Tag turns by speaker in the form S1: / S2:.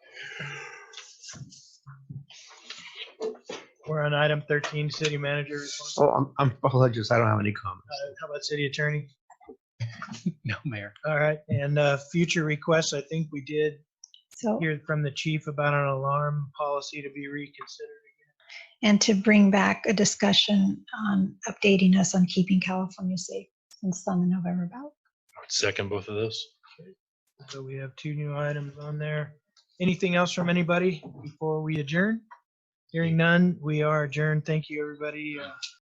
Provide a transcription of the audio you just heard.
S1: We're on item thirteen, city manager report.
S2: Oh, I'm, I'm apologies. I don't have any comment.
S1: Uh, How about city attorney?
S3: No, Mayor.
S1: All right, and uh, future requests, I think we did
S4: So,
S1: hear from the chief about an alarm policy to be reconsidered.
S4: and to bring back a discussion on updating us on keeping California safe since on the November ballot.
S5: Second both of those.
S1: So we have two new items on there. Anything else from anybody before we adjourn? Hearing none, we are adjourned. Thank you, everybody. Uh,